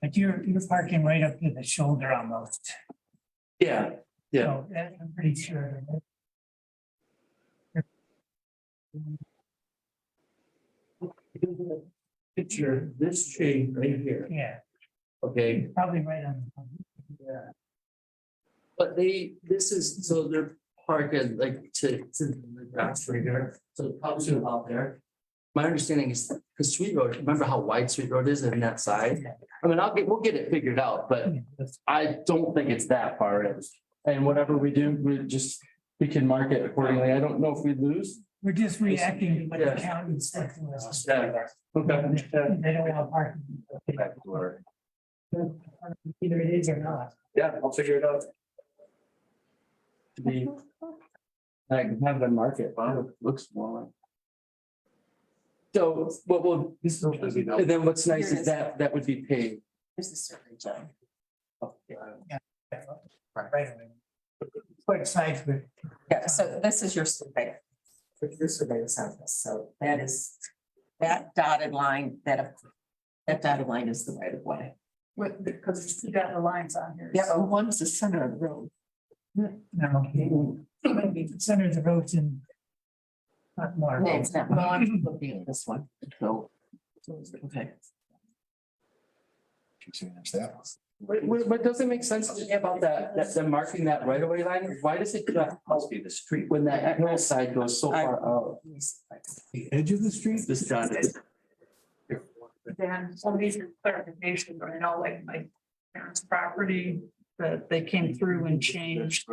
But you're, you're parking right up to the shoulder almost. Yeah, Yeah. So that- I'm pretty sure. picture this tree right here, Yeah, okay? probably right on. Yeah. But they, this is, so they're parking like to, to the grass right here, so probably should out there. My understanding is, because Sweet Road, remember how wide Sweet Road is in that side? I mean, I'll get, we'll get it figured out, but I don't think it's that far in. And whatever we do, we just, we can mark it accordingly. I don't know if we lose. We're just reacting to what the Yeah. county said to us. Yeah. Okay. They don't want parking. Either it is or not. Yeah, I'll figure it out. To be. I can have the market, wow, it looks smaller. So, what will, this, and then what's nice is that, that would be paid. Here's the survey, John. Right away. Quite sides, but Yeah, so this is your survey. Your surveyor's office, so that is, that dotted line, that, that dotted line is the right of way. With, because you got the lines on here. Yeah, but one's the center of the road. no. Center of the road's in. Not more. No, it's not. No, I'm looking at this one, so. Okay. Keep saying it's that one. But, but- but does it make sense to me about that, that, them marking that right away line? Why does it not? Must be the street. When that hillside goes so far out. Let me see if I can- The edge of the street? This John is. Then some of these are clarification, or, you know, like my parents' property, that they came through and changed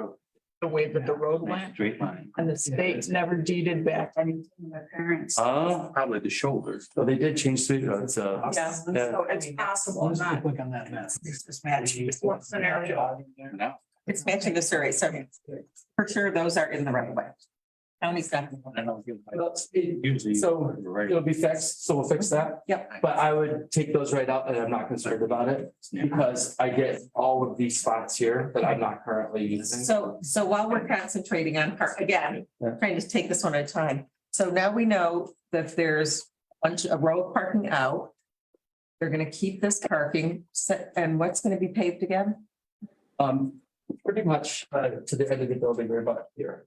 the way that the road went. Straight line. And the state never deeded back anything to my parents. Oh. Probably the shoulders. So they did change street roads, uh. Yeah, so it's possible, not. Click on that mess. This is magic. What scenario? Now. It's matching the survey, so for sure, those are in the right of way. County's got. uh, Usually. So it'll be fixed, so we'll fix that. Yep. But I would take those right out and I'm not concerned about it because I get all of these spots here that I'm not currently using. So, so while we're concentrating on part, again, Yeah. trying to take this one at a time. So now we know that there's a bunch, a row of parking out. They're gonna keep this parking set, and what's gonna be paved again? Um, pretty much uh to the end of the building right about here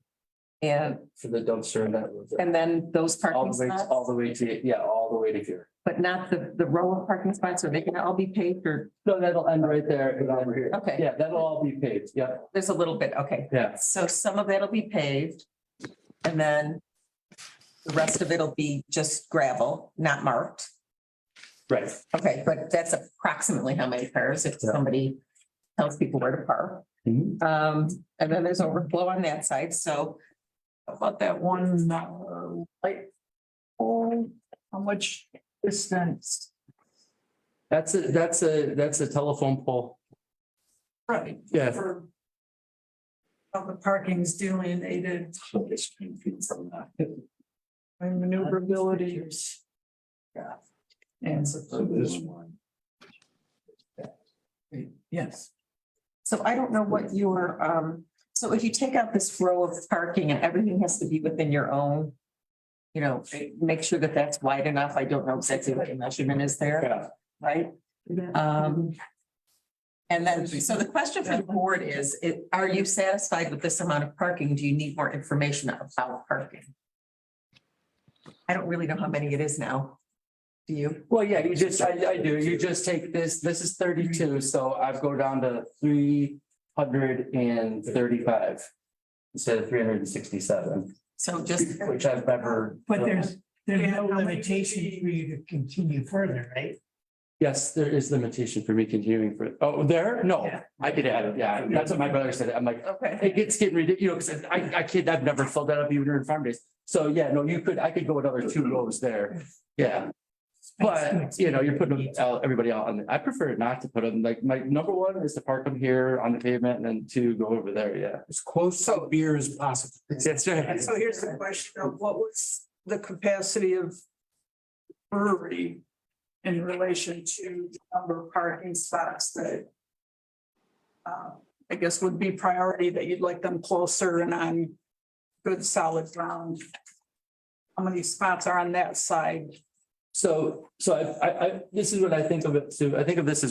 And, for the dumpster and that. was it. and then those All parking the way, spots, all the way to, yeah, all the way to here. but not the, the row of parking spots, are they gonna all be paved or, No, that'll end right there and over here. okay, Yeah, that'll all be paved. Yeah, there's a little bit, okay. yeah. So some of it'll be paved, and then the rest of it'll be just gravel, not marked. Right. Okay, but that's approximately how many cars if Yeah. somebody tells people where to park. Mhm. Um, and then there's overflow on that side, so How About that one, uh, like, oh, how much distance? That's a, that's a, that's a telephone pole. Right. Yeah. For. How the parking's delineated, and maneuverability. Yeah. And So this one. Yes. so I don't know what your, um, so if you take out this row of parking and everything has to be within your own, you know, make sure that that's wide enough. I don't know exactly what the measurement is there, Yeah. right? Um, and then, so the question for the board is, it, are you satisfied with this amount of parking? Do you need more information about parking? I don't really know how many it is now. Do you? Well, yeah, you just, I, I do, you just take this, this is thirty-two, so I go down to three hundred and thirty-five. Instead of three hundred and sixty-seven, So just, which I've never. But there's, there's no Yeah, how many limitation feet? for you to continue further, right? Yes, there is limitation for me continuing for, oh, there? No, Yeah. I could add it, yeah, that's what my brother said, I'm like, okay, it gets getting ridiculous, you know, 'cause I, I kid, I've never filled that up even during farm days. So, yeah, no, you could, I could go another two rows there, yeah. But, you know, you're putting them out, everybody out on, I prefer not to put them, like, my number one is to park them here on the pavement and then two go over there, yeah. As close to beer as possible. That's right. So here's the question of what was the capacity of brewery in relation to the number of parking spots that uh, I guess would be priority that you'd like them closer and on good solid ground. How many spots are on that side? So, so I, I, I, this is what I think of it too. I think of this as